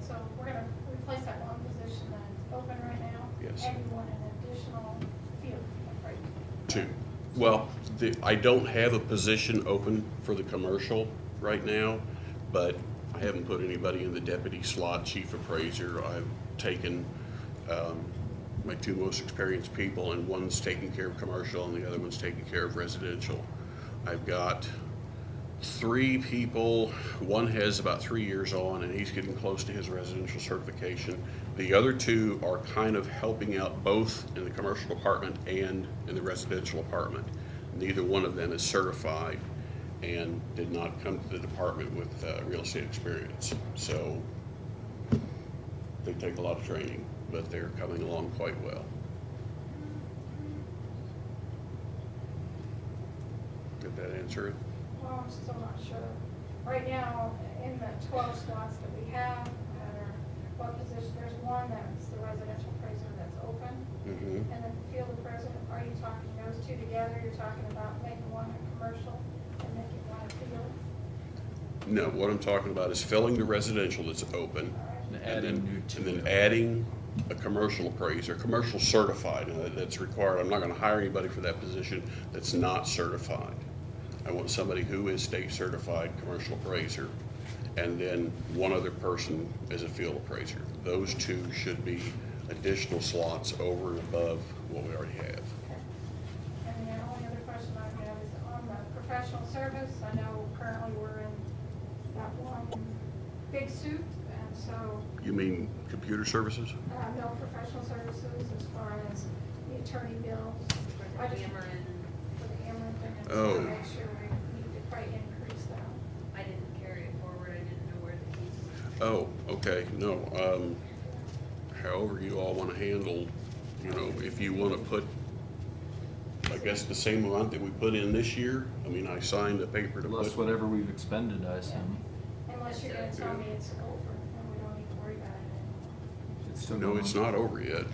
So we're gonna replace that one position that's open right now. Yes. And you want an additional field, right? Two. Well, the, I don't have a position open for the commercial right now, but I haven't put anybody in the deputy slot, chief appraiser. I've taken, um, my two most experienced people and one's taking care of commercial and the other one's taking care of residential. I've got three people, one has about three years on and he's getting close to his residential certification. The other two are kind of helping out both in the commercial department and in the residential apartment. Neither one of them is certified and did not come to the department with uh, real estate experience. So they take a lot of training, but they're coming along quite well. Did that answer it? Well, I'm still not sure. Right now, in the twelve slots that we have, that are, what position, there's one that's the residential appraiser that's open. Mm-hmm. And then the field appraiser, are you talking those two together? You're talking about making one a commercial and making one a field? No, what I'm talking about is filling the residential that's open. All right. and Adding then- new to And then it. adding a commercial appraiser, commercial certified, and that- that's required. I'm not gonna hire anybody for that position that's not certified. I want somebody who is state certified, commercial appraiser, and then one other person as a field appraiser. Those two should be additional slots over and above what we already have. And the only other question I have is on the professional service, I know currently we're in that one big suit, and so, You mean computer services? uh, no professional services as far as the attorney bills. I just- For the Ameren thing, I just Oh. wanna make sure we need to probably increase that. I didn't carry it forward, I didn't know where the keys were. Oh, okay, no, um, however you all wanna handle, you know, if you wanna put, I guess the same amount that we put in this year, I mean, I signed a paper to Plus put. whatever we've expended, I assume. Unless you're gonna tell me it's over, and we don't need to worry about it. It's still No, going it's on. not over yet, Okay,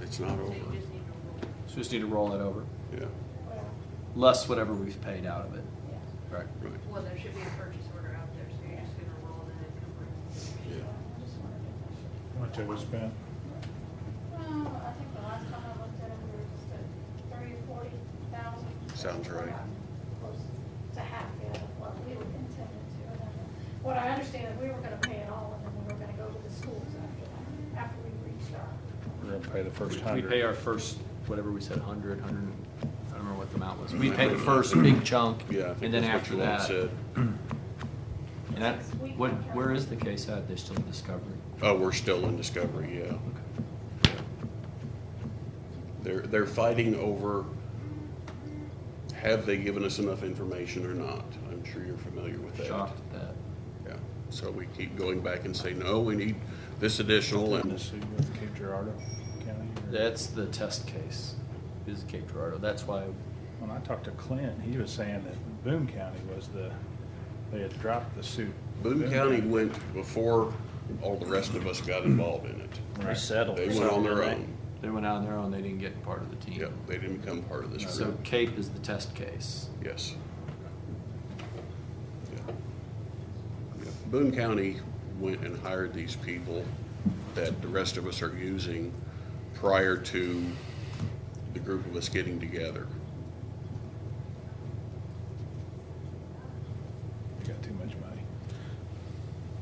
it's not So over, you just need to roll. So we just need to roll it over, yeah, well, less whatever we've paid out of it. yeah. Right. right, Well, there should be a purchase order out there, so you're just gonna roll it and encumber it. yeah. I just wanted to make sure. Much have we spent? Well, I think the last time I looked at it, we were just at thirty, forty thousand. Sounds right. Close to half, yeah, of what we were intended to. And then What I understand is we were gonna pay it all, and then we were gonna go to the schools after that, after we reached our. We're gonna pay the We- first We pay hundred. our first, whatever we said, hundred, hundred, and- I don't remember what the amount was. I We pay the remember that. first big chunk, Yeah, I think and then that's after what you all that. said. And that, Six week what, contract. where is the case at? They're still in discovery. Oh, we're still in discovery, yeah. They're, they're fighting over, have they given us enough information or not? I'm sure you're familiar with that. Shocked at that. Yeah, so we keep going back and say, no, we need this additional, In the and city with Cape Girardeau County. or- That's the test case, is Cape Girardeau. That's why, When I talked to Clint, he was saying that Boone County was the, they had dropped the suit. Boone County went before all the rest of us got involved in it. Right. Resettled. They went on their own. they went out on their own, they didn't get part of the team. Yep, they didn't become part of this So group. Cape is the test case. Yes. Yeah. Yeah. Boone County went and hired these people that the rest of us are using prior to the group of us getting together. They got too much money.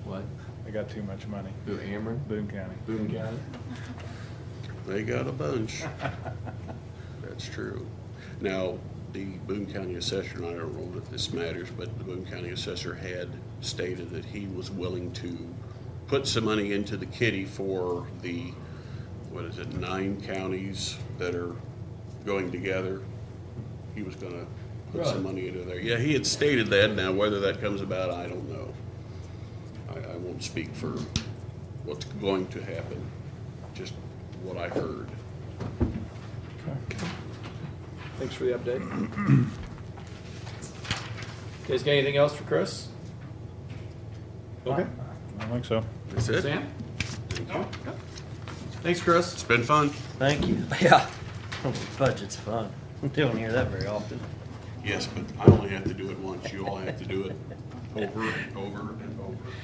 What? They got too much money. Who, Ameren? Boone County. Boone County? They got a bunch. That's true. Now, the Boone County Assessor, and I don't know if this matters, but the Boone County Assessor had stated that he was willing to put some money into the kitty for the, what is it, nine counties that are going together. He was gonna put some Right. money into there. Yeah, he had stated that. Now, whether that comes about, I don't know. I, I won't speak for what's going to happen, just what I heard. Okay. Thanks for the update. You Guys, got anything else for Chris? Okay. I don't think so. That's it? Sam? Thanks, Chris. It's been fun. Thank you. Yeah. Budget's fun. Don't hear that very often. Yes, but I only have to do it once. You all have to do it over, over, and over.